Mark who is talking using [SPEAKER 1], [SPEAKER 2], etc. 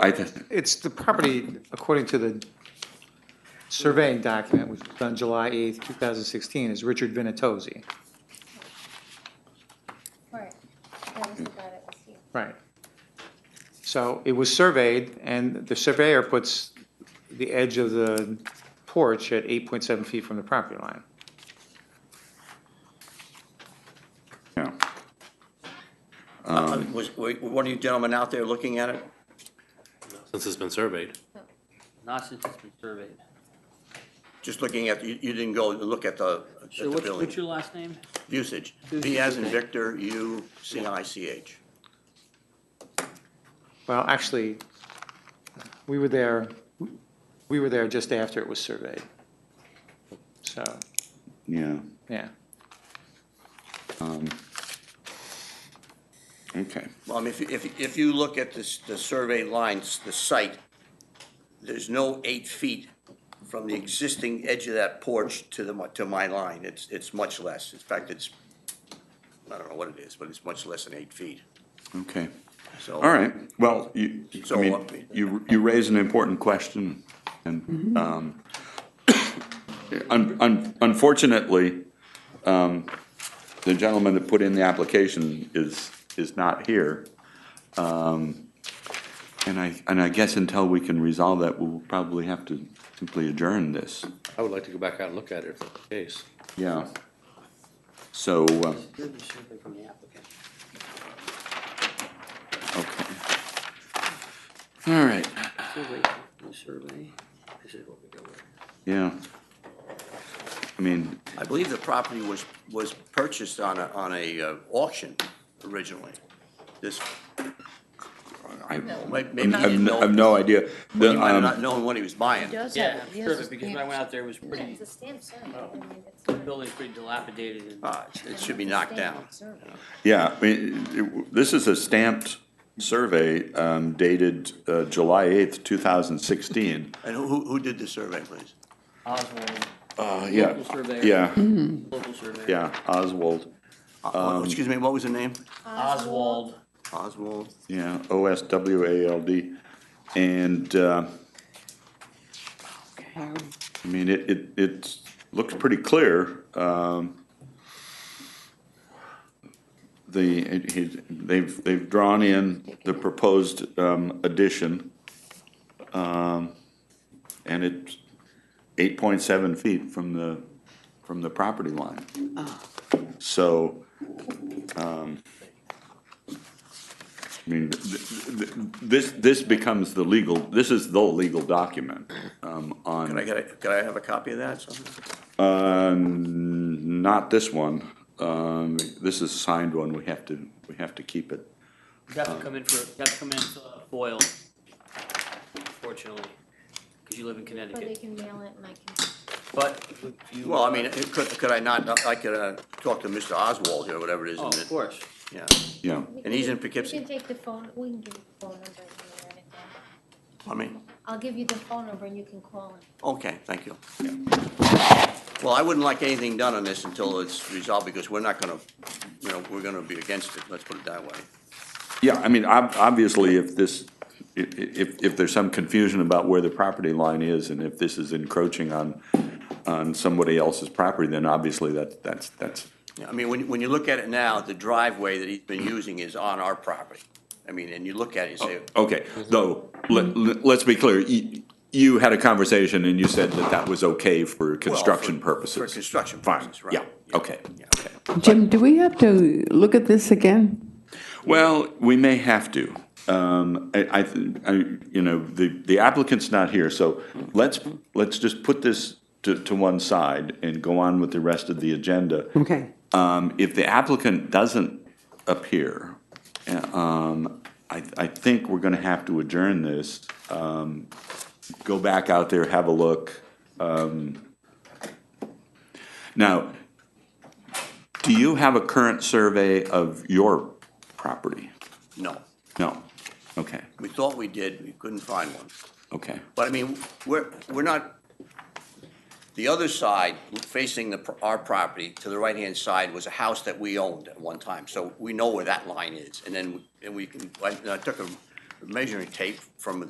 [SPEAKER 1] I just,
[SPEAKER 2] It's the property, according to the surveying document, which was done July 8th, 2016, is Richard Vinatozzi.
[SPEAKER 3] Right. That was the guy that was here.
[SPEAKER 2] Right. So it was surveyed, and the surveyor puts the edge of the porch at 8.7 feet from the property line.
[SPEAKER 1] yeah. Um,
[SPEAKER 4] Uh, Was, were were one of you gentlemen out there looking at it?
[SPEAKER 5] Since it's been surveyed.
[SPEAKER 6] Not since it's been surveyed.
[SPEAKER 4] Just looking at, you, you didn't go and look at the, at
[SPEAKER 6] So
[SPEAKER 4] the
[SPEAKER 6] what's, what's
[SPEAKER 4] building?
[SPEAKER 6] your last name?
[SPEAKER 4] Usage.
[SPEAKER 6] Usage,
[SPEAKER 4] V as in
[SPEAKER 6] okay.
[SPEAKER 4] Victor, U, C I C H.
[SPEAKER 2] Well, actually, we were there, we were there just after it was surveyed. So,
[SPEAKER 1] Yeah,
[SPEAKER 2] yeah.
[SPEAKER 1] okay.
[SPEAKER 4] Well, I mean, if, you- if, if you look at this, the survey lines, the site, there's no eight feet from the existing edge of that porch to the, mi- to my line. It's, it's much less. In fact, it's, I don't know what it is, but it's much less than eight feet.
[SPEAKER 1] Okay,
[SPEAKER 4] So.
[SPEAKER 1] all right, well, you, I
[SPEAKER 4] So, uh,
[SPEAKER 1] mean, you, you raise an important question, and, um, un- un- unfortunately, um, the gentleman that put in the application is, is not here. Um, And I, and I guess until we can resolve that, we'll probably have to simply adjourn this,
[SPEAKER 5] I would like to go back out and look at it if that's the case.
[SPEAKER 1] yeah. So, uh,
[SPEAKER 6] Here's the survey from the applicant.
[SPEAKER 1] okay. All right,
[SPEAKER 6] Survey, the survey, this is what we go with.
[SPEAKER 1] yeah. I mean,
[SPEAKER 4] I believe the property was, was purchased on a, on a uh, auction originally. This,
[SPEAKER 1] I,
[SPEAKER 4] might- maybe
[SPEAKER 1] I'm-
[SPEAKER 4] he
[SPEAKER 1] I've,
[SPEAKER 4] didn't know.
[SPEAKER 1] I've no idea. The,
[SPEAKER 4] He might have
[SPEAKER 1] um,
[SPEAKER 4] not known what he was buying.
[SPEAKER 3] does
[SPEAKER 6] Yeah,
[SPEAKER 3] have it. He has a
[SPEAKER 6] survey, because when I went out there, it was
[SPEAKER 3] Yeah,
[SPEAKER 6] pretty,
[SPEAKER 3] It's a stamp survey. I mean, it's
[SPEAKER 6] the
[SPEAKER 3] not-
[SPEAKER 6] building's pretty dilapidated and.
[SPEAKER 4] Uh, It should be knocked down.
[SPEAKER 3] It's a standard survey.
[SPEAKER 1] Yeah, I mean, it- this is a stamped survey um, dated uh, July eighth, two thousand sixteen.
[SPEAKER 4] And who- who, who did the survey, please?
[SPEAKER 6] Oswald,
[SPEAKER 1] Uh, yeah,
[SPEAKER 6] Local surveyor.
[SPEAKER 1] yeah,
[SPEAKER 6] local survey.
[SPEAKER 1] yeah, Oswald, Um,
[SPEAKER 4] Uh, oh, Excuse me, what was the name?
[SPEAKER 6] Oswald,
[SPEAKER 4] Oswald?
[SPEAKER 1] yeah, O S W A L D. And, uh, I mean, it, it, it looks pretty clear. um, The, it- he- they've, they've drawn in the proposed um, addition. um, And it's eight point seven feet from the, from the property line. So, um, I mean, th- th- this, this becomes the legal, this is the legal document um, on.
[SPEAKER 4] Can I get a, can I have a copy of that? something?
[SPEAKER 1] Um, Uh, not this one. Um, this is a signed one. We have to, we have to keep it.
[SPEAKER 6] you have to come in for, you have to come in for a foil, fortunately, because you live in
[SPEAKER 3] Or they
[SPEAKER 6] Connecticut.
[SPEAKER 3] can mail it and I can.
[SPEAKER 6] But if you.
[SPEAKER 4] Well, I mean, it- could, could I not, I could uh, talk to Mr. Oswald here, whatever it is.
[SPEAKER 6] Oh,
[SPEAKER 4] and
[SPEAKER 6] of
[SPEAKER 4] it-
[SPEAKER 6] course.
[SPEAKER 4] Yeah.
[SPEAKER 1] Yeah.
[SPEAKER 3] we
[SPEAKER 4] And he's
[SPEAKER 3] can-
[SPEAKER 4] in Poughkeepsie.
[SPEAKER 3] We can take the phone, we can give you the phone number. and you can write it down.
[SPEAKER 4] I mean,
[SPEAKER 3] I'll give you the phone number and you can call him.
[SPEAKER 4] okay, thank you. Well, I wouldn't like anything done on this until it's resolved because we're not gonna, you know, we're gonna be against it. Let's put it that way.
[SPEAKER 1] Yeah, I mean, ob- obviously, if this, i- i- if, if there's some confusion about where the property line is, and if this is encroaching on, on somebody else's property, then obviously that, that's, that's,
[SPEAKER 4] Yeah, I mean, when, when you look at it now, the driveway that he's been using is on our property. I mean, and you look at it, you say,
[SPEAKER 1] okay.
[SPEAKER 4] Mm-hmm.
[SPEAKER 1] Though, let, let's be clear, you, you had a conversation and you said that that was okay for construction
[SPEAKER 4] for- for
[SPEAKER 1] purposes.
[SPEAKER 4] construction
[SPEAKER 1] Fine,
[SPEAKER 4] purposes, right.
[SPEAKER 1] Yeah,
[SPEAKER 4] Yeah.
[SPEAKER 1] okay,
[SPEAKER 4] Yeah.
[SPEAKER 1] okay.
[SPEAKER 7] Jim, do we have to look at this again?
[SPEAKER 1] Well, we may have to. Um, I, I, th- I, you know, the, the applicant's not here, so let's, let's just put this to, to one side and go on with the rest of the agenda.
[SPEAKER 7] Okay.
[SPEAKER 1] Um, if the applicant doesn't appear, uh, um, I, I think we're gonna have to adjourn this. Um, go back out there, have a look. Um, now, do you have a current survey of your property?
[SPEAKER 4] no.
[SPEAKER 1] No. Okay,
[SPEAKER 4] We thought we did, we couldn't find one.
[SPEAKER 1] okay.
[SPEAKER 4] But I mean, we're, we're not, the other side facing the, our property to the right-hand side was a house that we owned at one time. So we know where that line is. And then, we- and we can, I I took a measuring tape from